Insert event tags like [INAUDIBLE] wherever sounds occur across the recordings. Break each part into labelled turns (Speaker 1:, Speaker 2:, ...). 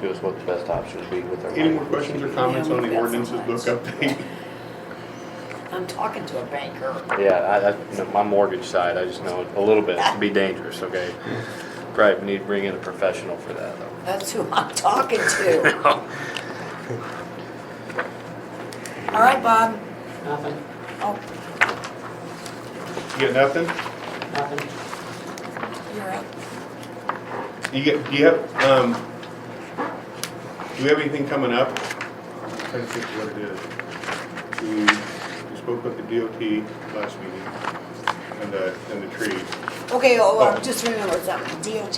Speaker 1: to us what the best option would be with our.
Speaker 2: Any more questions or comments on the
Speaker 3: Yeah, we've got
Speaker 2: ordinances
Speaker 3: so
Speaker 2: book
Speaker 3: much.
Speaker 2: update?
Speaker 3: I'm talking to a banker.
Speaker 1: Yeah, I, I, you know, my mortgage side, I just know a little bit, it can be dangerous, okay? Probably need to bring in a professional for that though.
Speaker 3: That's who I'm talking
Speaker 4: [LAUGHS]
Speaker 3: to. All right, Bob.
Speaker 4: Nothing,
Speaker 3: Oh,
Speaker 2: You got nothing?
Speaker 4: nothing.
Speaker 3: you're up.
Speaker 2: You get, do you have, um, do we have anything coming up? I'm trying to think what it is. We, we spoke with the DOT last meeting and the, and the tree.
Speaker 3: Okay, oh,
Speaker 2: Oh.
Speaker 3: I just remembered something, DOT.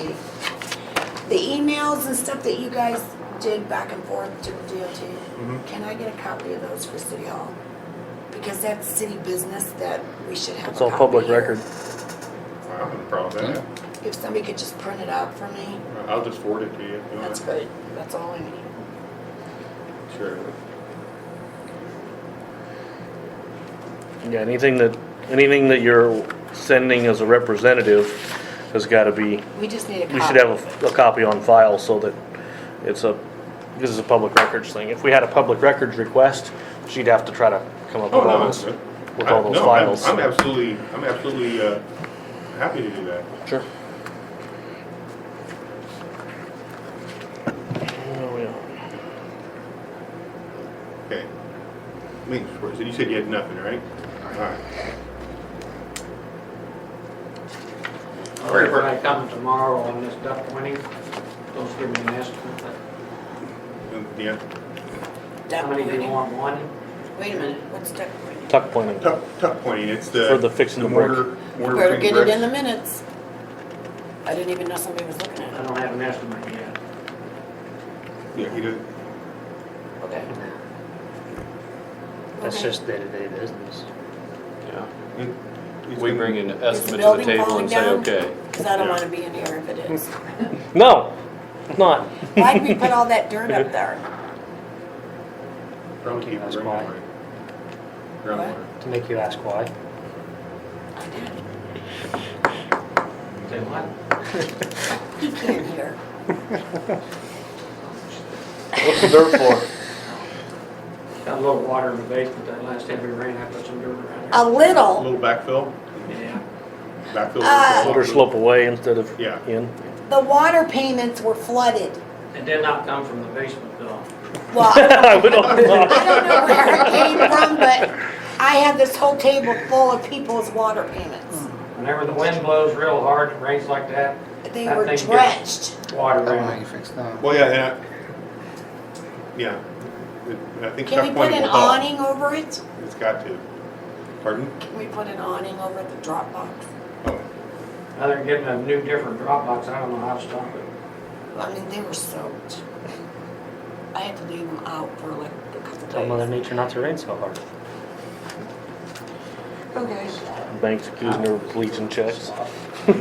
Speaker 3: The emails and stuff that you guys did back and forth to the
Speaker 2: Mhm.
Speaker 4: Mm-hmm.
Speaker 3: DOT, can I get a copy of those for City Hall? Because that's city business that we should have a
Speaker 5: It's all
Speaker 3: copy
Speaker 5: public
Speaker 3: here.
Speaker 5: record.
Speaker 2: I don't have a problem with that.
Speaker 3: If somebody could just print it out for me,
Speaker 2: I'll just forward it to you. if you want.
Speaker 3: that's great, that's all I need.
Speaker 2: Sure.
Speaker 5: Yeah, anything that, anything that you're sending as a representative has gotta be,
Speaker 3: We just need a copy.
Speaker 5: we should have a, a copy on file so that it's a, this is a public records thing. If we had a public records request, she'd have to try to come up
Speaker 2: Oh,
Speaker 5: with
Speaker 2: no,
Speaker 5: all
Speaker 2: that's
Speaker 5: those,
Speaker 2: good.
Speaker 5: with
Speaker 2: I-
Speaker 5: all those
Speaker 2: no, I'm-
Speaker 5: files.
Speaker 2: I'm absolutely, I'm absolutely, uh, happy to do that.
Speaker 5: Sure. Oh, yeah.
Speaker 2: Okay. Wait, so you said you had nothing, right? Alright.
Speaker 4: All right, When I come tomorrow on this duck twenty, those give me an estimate, but
Speaker 2: Yeah.
Speaker 4: how many do you want, one?
Speaker 3: Wait a minute, what's that?
Speaker 5: Tuck pointing.
Speaker 2: Tuck, tuck pointing, it's the.
Speaker 5: For the fixing the brick.
Speaker 2: mortar- mortar
Speaker 3: Better
Speaker 2: between
Speaker 3: get it in
Speaker 2: bricks.
Speaker 3: the minutes. I didn't even know somebody was looking
Speaker 4: I
Speaker 3: at
Speaker 4: don't have an estimate yet.
Speaker 2: Yeah, he did,
Speaker 3: it. Okay.
Speaker 6: That's
Speaker 3: Okay.
Speaker 6: just day-to-day business.
Speaker 1: [LAUGHS] Yeah.
Speaker 2: it- it's
Speaker 1: We
Speaker 2: in-
Speaker 1: bring an
Speaker 3: Is the
Speaker 1: estimate to the
Speaker 3: building
Speaker 1: table
Speaker 3: falling
Speaker 1: and say,
Speaker 3: down?
Speaker 1: okay.
Speaker 3: Because I don't
Speaker 2: Yeah.
Speaker 3: want to be in here if it
Speaker 6: [LAUGHS]
Speaker 3: is.
Speaker 5: No, it's not.
Speaker 3: Why did we
Speaker 5: [LAUGHS]
Speaker 3: put all that dirt up there?
Speaker 2: Probably keep
Speaker 6: That's
Speaker 2: bringing
Speaker 6: why.
Speaker 2: water. Groundwater.
Speaker 6: To make you ask why.
Speaker 3: I did.
Speaker 4: Say what?
Speaker 3: He can't hear.
Speaker 5: What's the dirt for?
Speaker 4: Got a little water in the basement, that last heavy rain, I put some dirt around
Speaker 3: A
Speaker 2: A
Speaker 3: little,
Speaker 2: little backfill,
Speaker 4: there. Yeah,
Speaker 2: backfill.
Speaker 3: Ah.
Speaker 5: Let her slope away instead of
Speaker 2: Yeah.
Speaker 5: in. [LAUGHS]
Speaker 3: the water payments were flooded.
Speaker 4: it did not come from the basement though.
Speaker 3: Well,
Speaker 5: We don't know.
Speaker 3: I don't know where it came from, but I had this whole table full of people's water payments.
Speaker 4: Whenever the wind blows real hard, it rains like that,
Speaker 3: They
Speaker 4: That
Speaker 3: were
Speaker 4: thing gets-
Speaker 3: drenched.
Speaker 4: water
Speaker 7: I don't know how you
Speaker 4: rain.
Speaker 7: fix that.
Speaker 2: Well, yeah, and I, yeah, It- I think
Speaker 3: Can
Speaker 2: tuck
Speaker 3: we put
Speaker 2: pointing
Speaker 3: an
Speaker 2: will help.
Speaker 3: awning over it?
Speaker 2: It's got to. Pardon?
Speaker 3: Can we put an awning over the drop box?
Speaker 2: Oh,
Speaker 4: Other than getting a new different drop box, I don't know how to stop it.
Speaker 3: I mean, they were soaked. I had to leave them out for like a
Speaker 5: Oh,
Speaker 6: Tell
Speaker 3: couple
Speaker 6: Mother
Speaker 3: days.
Speaker 6: Nature not to rain so hard.
Speaker 3: Okay,
Speaker 5: Banks accusing her of bleaching checks.
Speaker 3: all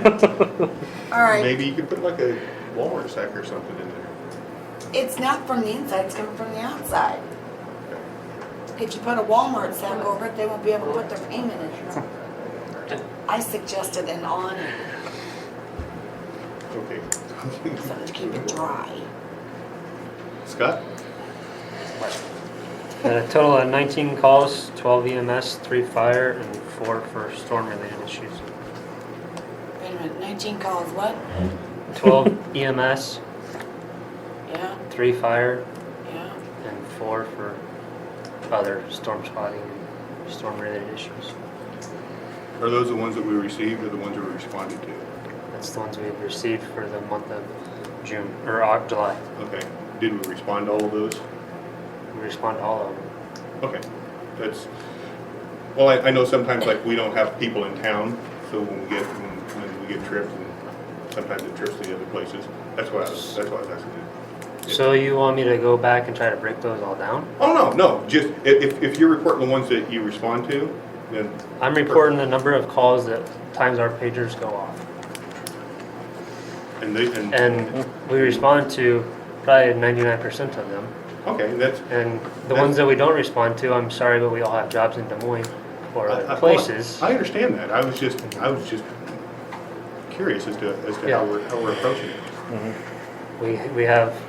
Speaker 3: right.
Speaker 2: maybe you could put like a walrus sack or something in there.
Speaker 3: It's not from the inside, it's coming from the outside. If you put a Walmart sack over it, they won't be able to put their payment in it. I suggested an awning,
Speaker 2: Okay. [LAUGHS]
Speaker 3: something to keep it dry.
Speaker 2: Scott?
Speaker 6: Had a total of 19 calls, E 12 EMS, 3 fire, and 4 for storm-related issues.
Speaker 3: Wait a minute, nineteen calls, what?
Speaker 6: 12 EMS,
Speaker 3: Yeah,
Speaker 6: 3 fire,
Speaker 3: yeah.
Speaker 6: and 4 for other storm spotting and storm-related issues.
Speaker 2: Are those the ones that we received or the ones that we responded to?
Speaker 6: That's the ones we've received for the month of June, or uh, July.
Speaker 2: Okay. Did we respond to all of those?
Speaker 6: We respond to all of them.
Speaker 2: Okay, that's, well, I, I know sometimes like we don't have people in town, so when we get, when when we get trips and sometimes it trips to the other places, that's why I was, that's why I was asking you.
Speaker 6: So you want me to go back and try to break those all down?
Speaker 2: Oh, no, no, just, i- if, if you're reporting the ones that you respond to, then,
Speaker 6: I'm reporting the number of calls that times our pagers go off.
Speaker 2: and they, and,
Speaker 6: and we respond to probably 99% of them.
Speaker 2: okay, that's,
Speaker 6: And the ones that we don't respond to, I'm sorry, but we all have jobs in Des Moines or
Speaker 2: I-
Speaker 6: other
Speaker 2: I-
Speaker 6: places.
Speaker 2: I understand that, I was just, I was just curious as to, as to
Speaker 6: Yeah.
Speaker 2: how we're, how we're approaching it.
Speaker 6: We, we have